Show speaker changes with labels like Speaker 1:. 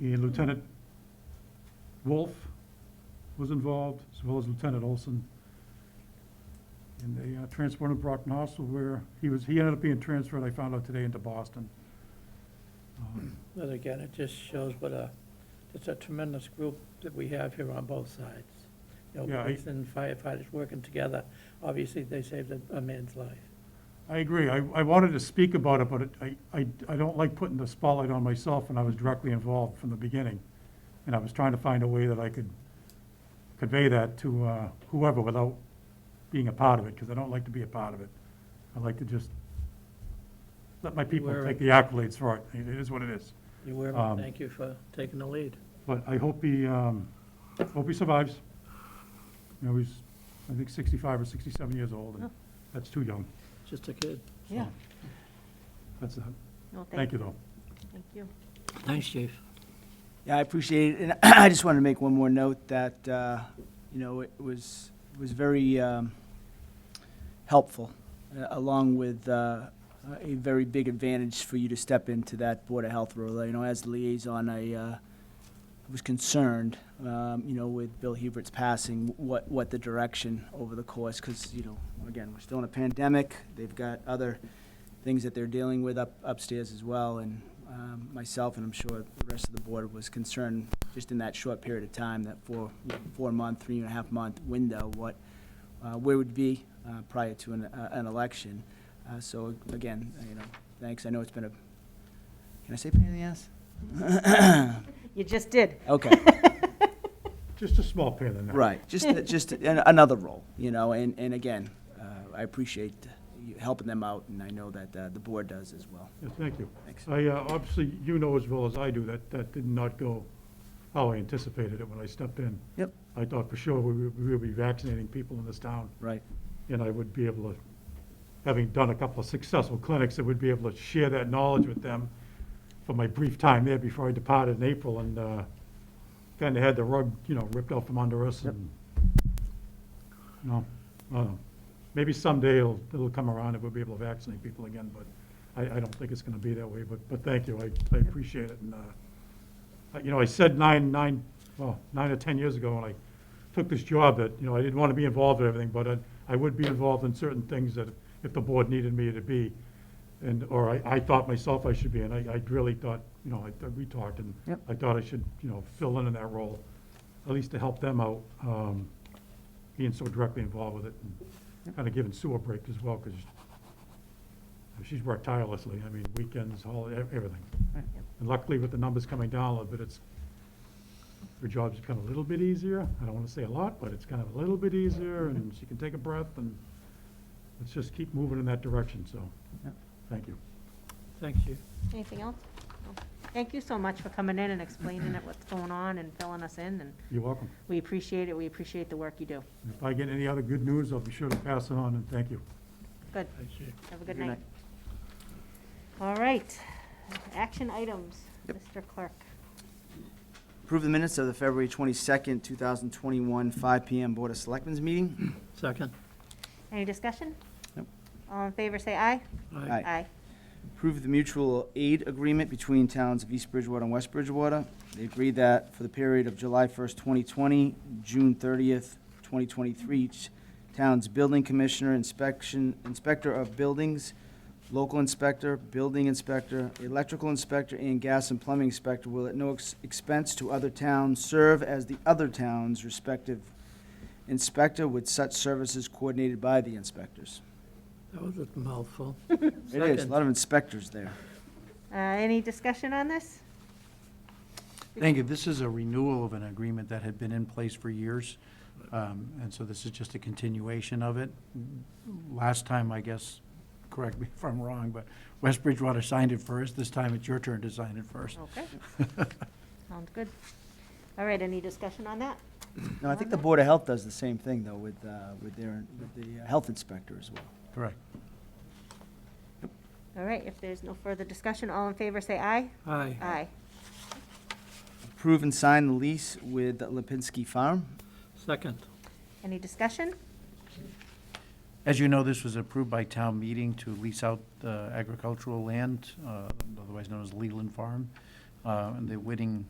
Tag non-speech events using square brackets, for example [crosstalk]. Speaker 1: And Lieutenant Wolf was involved, as well as Lieutenant Olson. And they uh, transported him to Brockton Hospital where he was, he ended up being transferred, I found out today, into Boston. Um,
Speaker 2: But again, it just shows what a, it's a tremendous group that we have here on both sides. You
Speaker 1: Yeah,
Speaker 2: know,
Speaker 1: I-
Speaker 2: police and firefighters working together, obviously, they saved a- a man's life.
Speaker 1: I agree. I, I wanted to speak about it, but it- I, I, I don't like putting the spotlight on myself when I was directly involved from the beginning. And I was trying to find a way that I could convey that to uh, whoever without being a part of it, because I don't like to be a part of it. I like to just let my people
Speaker 2: Where-
Speaker 1: take the accolades for it. It is what it is.
Speaker 2: You were,
Speaker 1: Um,
Speaker 2: thank you for taking the lead.
Speaker 1: But I hope he, um, hope he survives. You know, he's, I think, 65 or 67 years old, and that's too young.
Speaker 2: Just a kid.
Speaker 3: Yeah,
Speaker 1: That's, uh,
Speaker 3: no,
Speaker 1: thank
Speaker 3: thank,
Speaker 1: you, though.
Speaker 3: thank you.
Speaker 2: Thanks, chief.
Speaker 4: Yeah, I appreciate it, and [clears throat] I just wanted to make one more note that, uh, you know, it was, was very um, helpful, uh, along with uh, a very big advantage for you to step into that Board of Health role. You know, as the liaison, I uh, was concerned, um, you know, with Bill Hubert's passing, what, what the direction over the course, because, you know, again, we're still in a pandemic, they've got other things that they're dealing with up upstairs as well, and um, myself, and I'm sure the rest of the board was concerned, just in that short period of time, that four, four-month, three and a half month window, what, uh, where would be uh, prior to an, uh, an election. Uh, So again, you know, thanks, I know it's been a, can I say pain in the ass?
Speaker 3: You just did.
Speaker 4: Okay.
Speaker 1: Just a small pain in the neck.
Speaker 4: Right, just, just an- another role, you know, and, and again, uh, I appreciate you helping them out, and I know that uh, the board does as well.
Speaker 1: Yes, thank you.
Speaker 4: Thanks.
Speaker 1: I, uh, obviously, you know as well as I do that that did not go how I anticipated it when I stepped in.
Speaker 4: Yep.
Speaker 1: I thought for sure we would- we would be vaccinating people in this town,
Speaker 4: Right,
Speaker 1: and I would be able to, having done a couple of successful clinics, I would be able to share that knowledge with them for my brief time there before I departed in April, and uh, kind of had the rug, you know, ripped out from under us,
Speaker 4: Yep.
Speaker 1: and, you know, I don't know. maybe someday it'll, it'll come around and we'll be able to vaccinate people again, but I, I don't think it's gonna be that way, but, but thank you, I, I appreciate it, and, uh, uh, you know, I said nine, nine, well, nine or 10 years ago when I took this job that, you know, I didn't want to be involved in everything, but I, I would be involved in certain things that if the board needed me to be, and, or I, I thought myself I should be, and I, I really thought, you know, I, thought- we talked, and
Speaker 4: Yep.
Speaker 1: I thought I should, you know, fill in in that role, at least to help them out, um, being so directly involved with it, and
Speaker 4: Yep.
Speaker 1: kind of giving Sue a break as well, because she's worked tirelessly, I mean, weekends, holiday, everything.
Speaker 4: Right.
Speaker 3: Yep.
Speaker 1: And luckily, with the numbers coming down a little bit, it's, her job's become a little bit easier. I don't want to say a lot, but it's kind of a little bit easier, and she can take a breath, and let's just keep moving in that direction, so,
Speaker 4: Yep.
Speaker 1: thank you.
Speaker 2: Thanks, chief.
Speaker 3: Anything else? No. Thank you so much for coming in and explaining it, what's going on and filling us in, and
Speaker 1: You're welcome.
Speaker 3: we appreciate it, we appreciate the work you do.
Speaker 1: If I get any other good news, I'll be sure to pass it on, and thank you.
Speaker 3: Good,
Speaker 2: Thanks, chief.
Speaker 3: have a good
Speaker 4: Good
Speaker 3: night. All right, action items, Mr. Clerk.
Speaker 4: Approve the minutes of the February 22nd, 2021, 5 PM Board of Selectmen's meeting.
Speaker 2: Second.
Speaker 3: Any discussion?
Speaker 4: Nope.
Speaker 3: All in favor, say aye.
Speaker 4: Aye. Approve the mutual aid agreement between towns of East Bridgewater and West Bridgewater. They agreed that for the period of July 1st, 2020, June 30th, 2023, each town's building commissioner, inspection, inspector of buildings, local inspector, building inspector, electrical inspector, and gas and plumbing inspector will at no ex- expense to other towns serve as the other town's respective inspector with such services coordinated by the inspectors.
Speaker 2: That was a mouthful.
Speaker 4: It is, a
Speaker 2: Second.
Speaker 4: lot of inspectors there.
Speaker 3: Uh, any discussion on this?
Speaker 5: Thank you. This is a renewal of an agreement that had been in place for years, um, and so this is just a continuation of it. Last time, I guess, correct me [laughs] if I'm wrong, but West Bridgewater signed it first. This time, it's your turn to sign it first.
Speaker 3: Okay. Sounds good. All right, any discussion on that?
Speaker 4: No, I think the Board of Health does the same thing, though, with, uh, with their, with the uh, health inspector as well.
Speaker 5: Correct.
Speaker 3: All right, if there's no further discussion, all in favor, say aye.
Speaker 2: Aye.
Speaker 3: Aye.
Speaker 4: Approve and sign the lease with Lipinski Farm.
Speaker 2: Second.
Speaker 3: Any discussion?
Speaker 5: As you know, this was approved by town meeting to lease out uh, agricultural land, uh, otherwise known as Leland Farm. Uh, And the Whiting